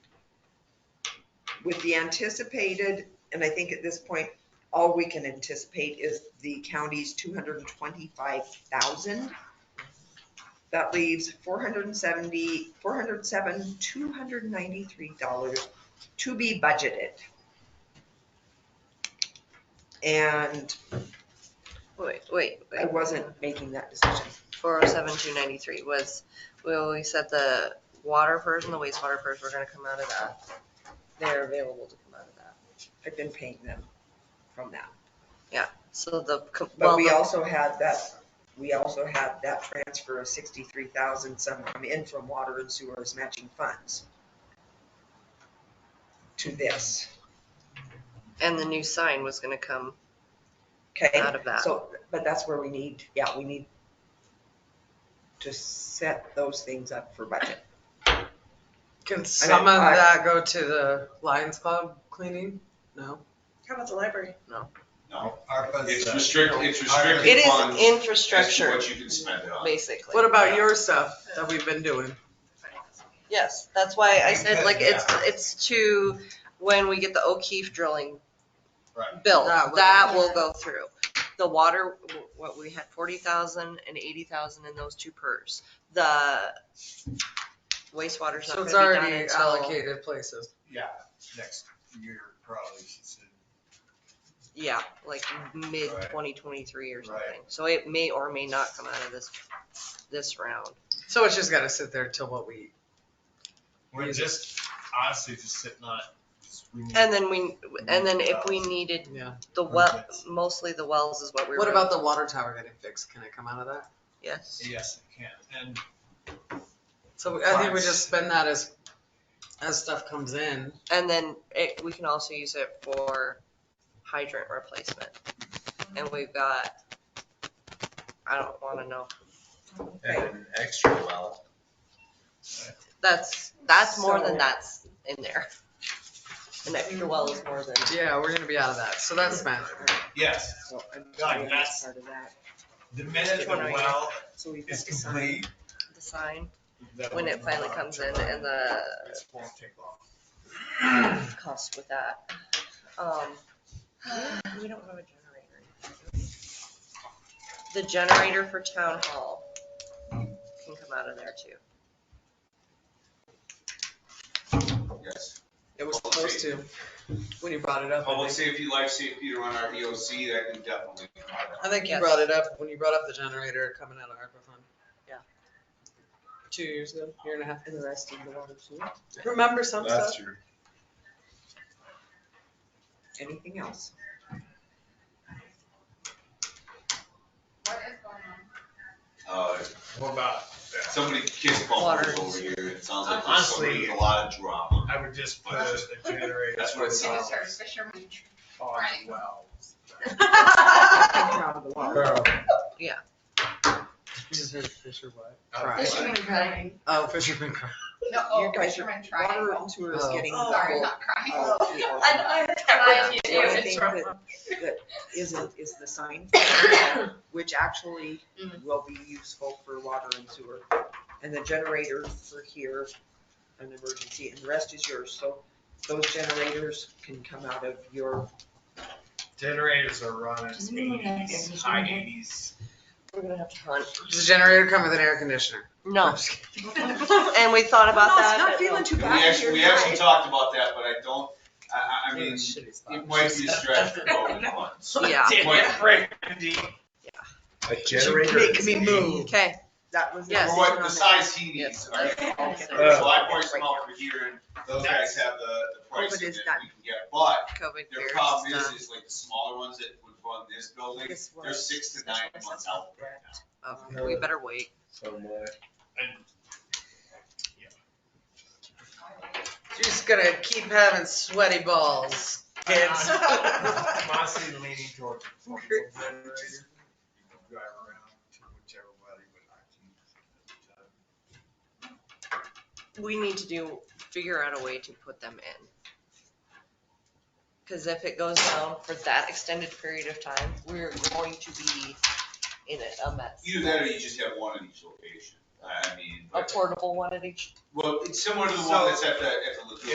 with the anticipated, and I think at this point, all we can anticipate is the county's two hundred and twenty-five thousand. That leaves four hundred and seventy, four hundred and seven, two hundred and ninety-three dollars to be budgeted. And Wait, wait, I wait. wasn't making that decision. Four oh seven, two ninety-three was, well, we said the water PERS and the wastewater PERS were gonna come out of that. They're available to come out of that. I've been paying them from that. So the, co- well, But we the- also had that, we also had that transfer of sixty-three thousand some come in from water and sewers matching funds to this, and the new sign was gonna come okay? out of that. So, but that's where we need, yeah, we need to set those things up for budget. Can some of I- that go to the Lions Club cleaning? No. How about the library? No, ARPA's. it's uh, restricted, it's It restricted funds. is as to infrastructure, What you can spend it on. basically. What about your stuff that we've been doing? Yes, that's why I said like it's, Yeah. it's to, when we get the O'Keefe drilling Right. built, That will- that will go through. The water, what, we had forty thousand and eighty thousand in those two PERS. The wastewater's not So gonna be it's done already until, allocated places. Yeah, next year probably should send. yeah, like mid Right. twenty twenty-three or Right. something. So it may or may not come out of this, this round. So it's just gotta sit there till what we eat. We're just honestly just sitting on it. 'cause we need- And then we, and then if we needed Yeah. the well, mostly the wells is what we were. What about the water tower getting fixed? Can it come out of that? Yes. Yes, it can. And So I think we Fines. just spend that as, as stuff comes in. And then it, we can also use it for hydrant replacement. And we've got, I don't wanna know, And an extra well. that's, that's more So- than that's in there. An extra well is more than, Yeah, we're gonna be out of that. So that's spent. yes, So I'm God, doing that's- part of that. the minute the well So we've got is to sign. complete. the sign, that when it will finally not comes in turn on. and the This won't take long. cost with that. Um, we don't have a generator. The generator for town hall can come out of there too. Yes. It was supposed to, when you brought it up. I Public think. safety, life safety, to run our EOC, that can definitely come out of I think you Yes. brought it up when you brought up the generator coming out of ARPA fund. Yeah. Two years ago, year and a half. And the rest in the water sewer. Remember some stuff? true. Anything else? Uh, What about, somebody kiss Water. bumpers over here, it sounds like there's Honestly- somebody with a lot of drama. I would just put a a generator. That's what it on- sounds Sorry, fisherman. On Right. wells. Taken out of the water. Fisherman crying. Oh, Fisherman Cove. No, oh, You guys are- fisherman trying. Water and sewer is Oh. getting. Oh, Sorry, double- uh, not crying. all three or one. I So I do. think that, that isn't, is the sign, for- which actually will be useful for water and sewer. And the generator for here, an emergency, and the rest is yours, so those generators can come out of your, Generators are running Does anyone have eighties, decision high yet? eighties. We're gonna have to hunt. Does the generator come with an air conditioner? No, I'm just kidding. and we thought about No, it's that. not but feeling too We bad if actually, you're we actually not. talked about that, but I don't, I, I, I mean, Shitty spot. it might be a stretch for both funds. Yeah. Did it, Randy? A Make me move. Okay, That was. the Yes. decision For what, on the that. size he needs, all right? Okay. So I priced them out for here, and those guys have the, the But pricing it's that not- we can get, but COVID Their fears problem is, stuff. is like the smaller ones that would run this building, This they're was six to nine special months out assessment right grant. now. Okay, We better wait. You're just gonna keep having sweaty balls, kids. I'm honestly leaning towards. the phone generator. You can Drive around to whichever way you would like to. We need to do, figure out a way to put them in. Cause if it goes down for that extended period of time, we're going to be in a- a mess. Either that or you just have one in each location, I I mean, A but, portable one at each well, it's similar to the So- one that's at the, at the lagoon.